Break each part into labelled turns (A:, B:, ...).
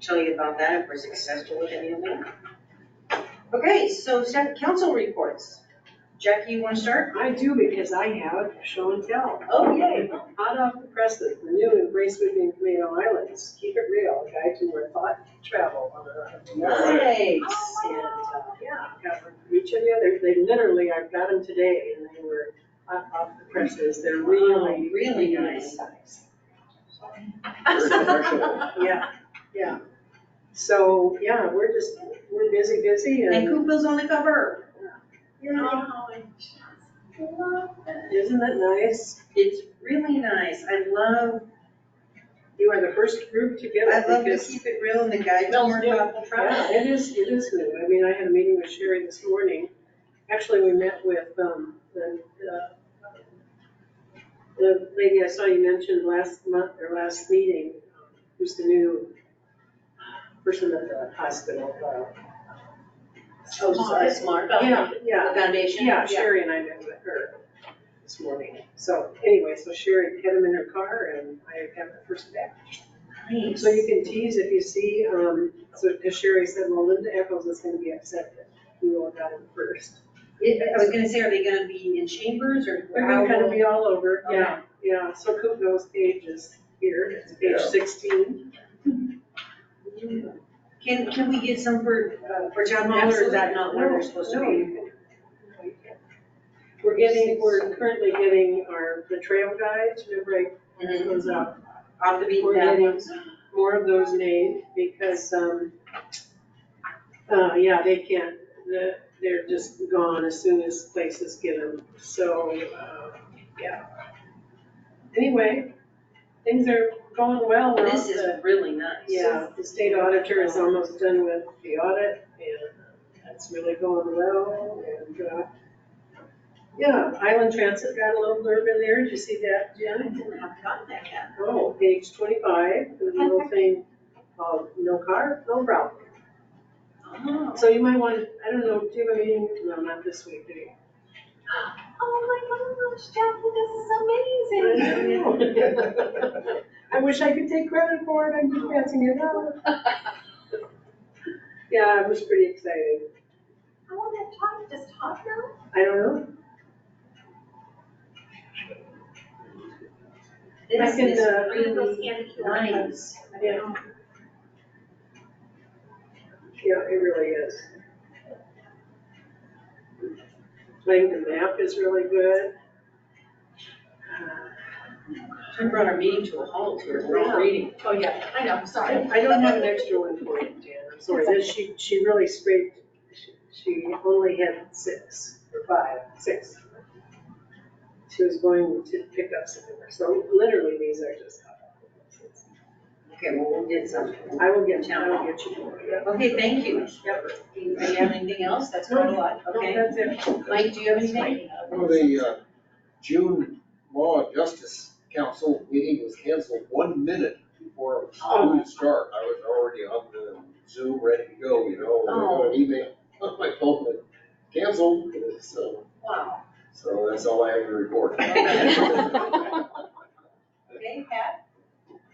A: tell you about that if we're successful with any of them. Okay, so staff council reports. Jackie, you wanna start?
B: I do because I have show and tell.
A: Oh, yay.
B: Hot off the presses, the new embrace moving Tomato Islands. Keep it real, guide to where thought travel on the island.
A: Nice.
B: And, uh, yeah, got one for each of you. They're- They literally, I've got them today and they were hot off the presses. They're really,
A: Really nice.
C: Very professional.
B: yeah, yeah. So, yeah, we're just, we're busy, busy
A: And
B: and,
A: Koopa's on the cover.
B: yeah, isn't that nice?
A: It's really nice. I love,
B: You are the first group to get it
A: I love to
B: because-
A: keep it real and the guide to more thoughtful
B: Yeah,
A: travel.
B: it is, it is new. I mean, I had a meeting with Sherry this morning. Actually, we met with, um, the, uh, the lady I saw you mentioned last month, or last meeting, who's the new person at the hospital. uh,
A: Oh, sorry. Smart.
B: Yeah, yeah,
A: foundation?
B: yeah, Sherry and I met with her this morning. So anyway, so Sherry had him in her car and I have the first batch.
A: Nice.
B: So you can tease if you see, um, so, cause Sherry said, well, Linda Echols is gonna be upset that you all got it first.
A: I I was gonna say, are they gonna be in chambers or?
B: They're gonna kind of be all over,
A: Okay.
B: yeah, yeah, so Kupno's page is here, it's
C: Yeah.
B: page sixteen.
A: Can, can we get some for, uh, for town hall or is that not where they're supposed to
B: No,
A: be?
B: no. We're getting, we're currently getting our, the trail guides, remember I
A: Mhm.
B: those out,
A: Off the beaten
B: We're getting-
A: path?
B: more of those made, because, um, uh, yeah, they can't, the, they're just gone as soon as places get them, so, uh, yeah. Anyway, things are going well, we're
A: This
B: on the-
A: is really nice.
B: Yeah, the state auditor is almost done with the audit and that's really going well and, uh, yeah, Island Transit got a little blurb in there. Did you see that, Jen?
A: I've gotten that yet.
B: Oh, page twenty-five, the little thing called no car, no route.
A: Oh.
B: So you might want, to I don't know, do you have a meeting? No, not this week, do you?
D: Oh my gosh, Jackie, this is amazing.
B: I wish I could take credit for it, I'm just passing it out. Yeah, it was pretty exciting.
D: I want to talk, just talk now.
B: I don't know,
A: This
B: can,
A: is
B: uh,
A: really nice.
B: Yeah. Yeah, it really is. I think the map is really good.
A: I brought our meeting to a halt here, we're all reading.
D: Oh, yeah, I know,
B: I
D: sorry.
B: I don't have an extra one for you, Jan, I'm sorry, This- she, she really scraped, she- she only had six, or five, six. She was going to pick up some of her, so literally these are just.
A: Okay, well, we'll get something.
B: I will get, I will get you more, yeah.
A: Okay, thank you.
B: Yep.
A: Do you have anything else? That's quite a lot,
B: Okay,
A: okay.
B: Oh, that's it.
A: Mike, do you have anything?
C: Well, the uh, June Law and Justice Council meeting was canceled one minute before it was
B: Oh.
C: due to start. I was already on the Zoom, ready to go, you know, and I got an email on my phone that canceled, so,
A: Wow.
C: so that's all I have to report.
A: Okay, Pat?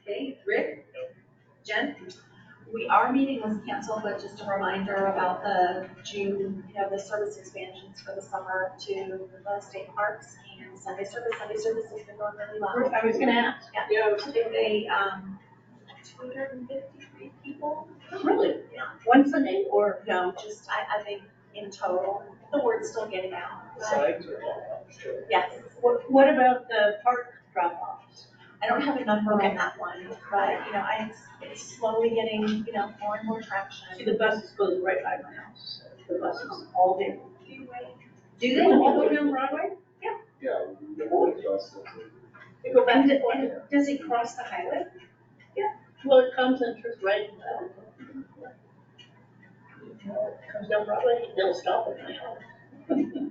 A: Okay, Rick? Jen?
D: We, our meeting was canceled, but just a reminder about the June, you know, the service expansions for the summer to the state parks and Sunday service. Sunday service has been going really well.
B: I was gonna ask.
D: Yeah.
B: Yeah, I was-
D: Today, they, um, two hundred and fifty-three people.
A: Really?
D: Yeah.
A: One Sunday or?
D: No, just, I, I think in total, the word's still getting out. Yes.
E: What, what about the park drop-offs?
D: I don't have a number on that one, but, you know, I, it's slowly getting, you know, more and more traction.
E: See, the buses go right by my house, the buses all day.
A: Do they all go down Broadway?
C: Yeah, the morning justice.
E: They go back
A: And,
E: and forth.
A: and does it cross the highway?
E: Well, it comes and turns right. uh, Comes down Broadway, they'll stop at my house.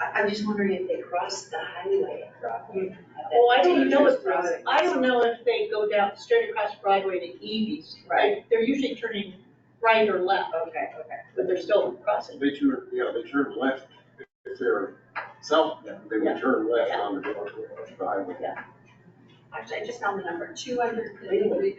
A: I, I'm just wondering if they cross the highway at Broadway.
E: Oh, I don't know if,
A: Broadway.
E: I don't know if they go down, straight across Broadway to Evie's.
A: Right.
E: They're usually turning right or left,
A: Okay, okay.
E: but they're still crossing.
C: They turn, yeah, they turn left if they're south, they would turn left on the Broadway highway.
D: Actually, I just found the number, two hundred and fifty-three